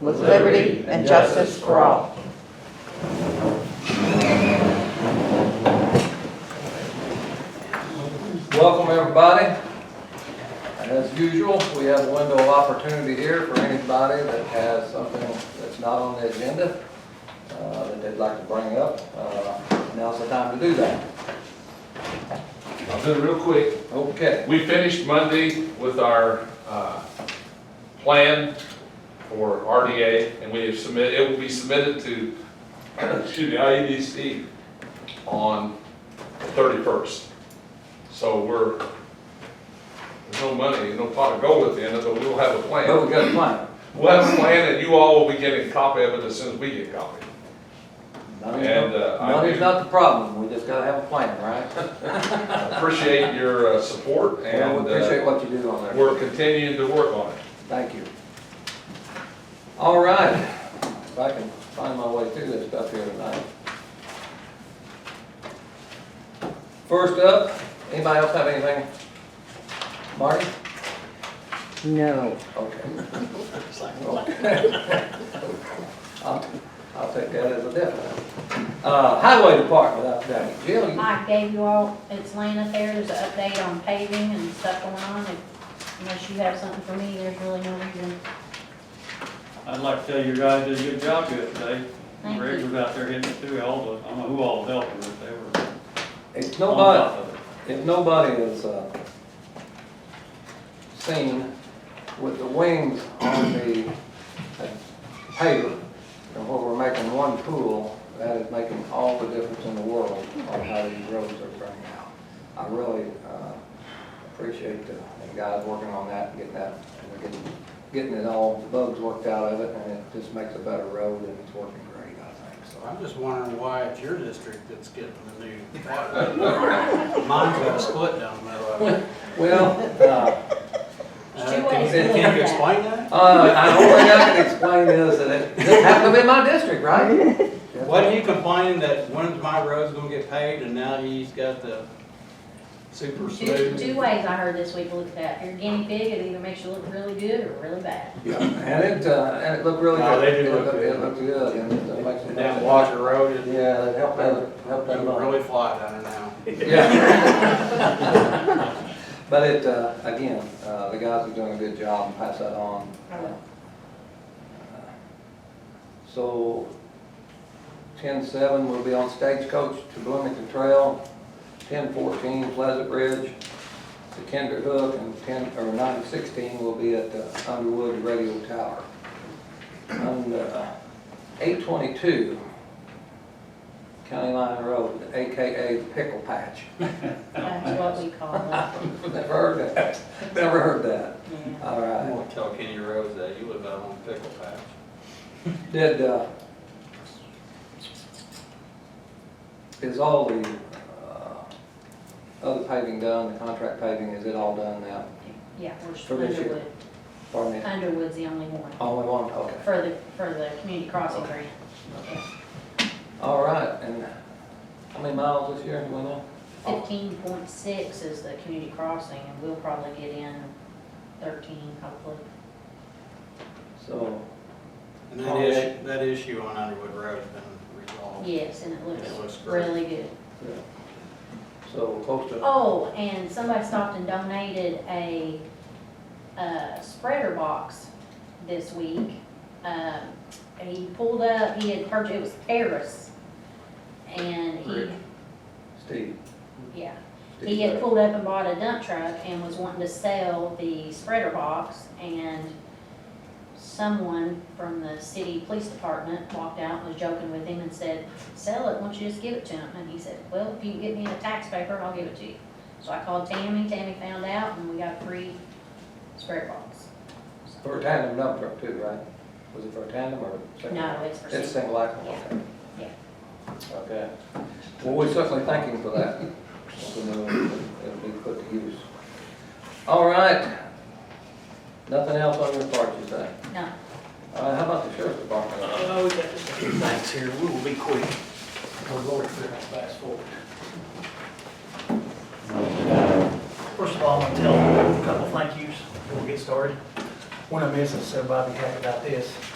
with liberty and justice for all. Welcome, everybody. As usual, we have a window of opportunity here for anybody that has something that's not on the agenda uh, that they'd like to bring up. Uh, Now's the time to do that. I'll do it real quick. Okay. We finished Monday with our uh, plan for RDA, and we have submitted, it will be submitted to, excuse me, IEDC on the 31st. So we're, there's no money, no pot of gold at the end of it, but we'll have a But we plan. got a plan. We'll have a plan, and you all will be getting a copy of it as soon as we get a copy. And, Money's uh, not- I money's do- not the problem, we just gotta have a plan, right? I Appreciate your uh, support, And and we appreciate uh, what you do on there. we're continuing to work on it. Thank you. All right, if I can find my way through this stuff here tonight. First up, anybody else have anything? Marty? No. Okay. Oh. I'll, I'll take that as a definite. Uh, highway department, I've got it. Jill, you- I gave you all, it's Lana there, there's an update on paving and stuff going on. If- Unless you have something for me, there's really no reason. I'd like to tell you guys did a good job good today. Thank Rick you. was out there hitting it through all the, I don't know who all helped him, but they were if on nobody, top of it. If nobody is, uh, seen with the wings on the uh, paper, and where we're making one pool, that is making all the difference in the world on how these roads are turning out. I really, uh, appreciate the the guys working on that, getting that, and getting, getting it all, the bugs worked out of it, and it just makes a better road, and it's working great, I think, so. I'm just wondering why it's your district that's getting the new water. Mine's got a split down the middle of it. Well, uh, There's two Uh, ways to Can look can you at it. explain that? Uh, I don't think I can explain this, and it, this happened to be my district, right? Wasn't you complaining that when's my road's gonna get paved and now he's got the super Two, two smooth? ways I heard this week to look at that. If you're a guinea pig, it either makes you look really good or really bad. Yeah, And it, uh, and it looked really good. No, they do It look looked- It good. looked good, and it makes it. And that Walker Road is, Yeah, that helped, that helped that you lot. really fly down there now. Yeah. But it, uh, again, uh, the guys are doing a good job and pass that on. Uh, I will. So, ten-seven will be on Stagecoach to Bloomington Trail, ten-fourteen Pleasant Ridge to Kinder Hook, and ten, or nine-sixteen will be at uh, Underwood Radio Tower. And, uh, eight-twenty-two County Line Road, AKA Pickle Patch. That's what we call it. Never heard that, never heard that, Yeah. all I'm right. gonna tell Kenny Rose that, you live out on Pickle Patch. Did, uh, is all the, uh, other paving done, the contract paving, is it all done now? Yeah, For we're this year. Underwood. Pardon me? Underwood's the only one Only one, okay. for the, for the community crossing grant. All right, and how many miles this year, do we know? Fifteen point six is the community crossing and we'll probably get in thirteen hopefully. So, And that issue, that issue on Underwood Road's been resolved. Yes, and it looks It looks great. really good. yeah. So we're close to, Oh, and somebody stopped and donated a, uh spreader box this week. Um, and he pulled up, he had purchased, it was Paris. And he, Rick. Steve. yeah, Steve he had Barrett. pulled up and bought a dump truck and was wanting to sell the spreader box and someone from the city police department walked out and was joking with him and said, sell it, won't you just give it to him? And he said, well, if you can get me a tax paper, I'll give it to you. So I called Tammy, Tammy found out and we got a free spreader box. For a tandem dump truck too, right? Was it for a tandem or? single? No, it's for It's sale. single axle, Yeah. okay. Yeah. Okay. Well, we certainly thank him for that. We know It'll be put to use. All right. Nothing else on your part, you say? No, All right, how about the sheriff's department? Oh, we got just a few things here, we will be quick. We're going through it fast forward. First of all, I'm gonna tell a couple thank yous before we get started. One of them is, so Bobby talked about this.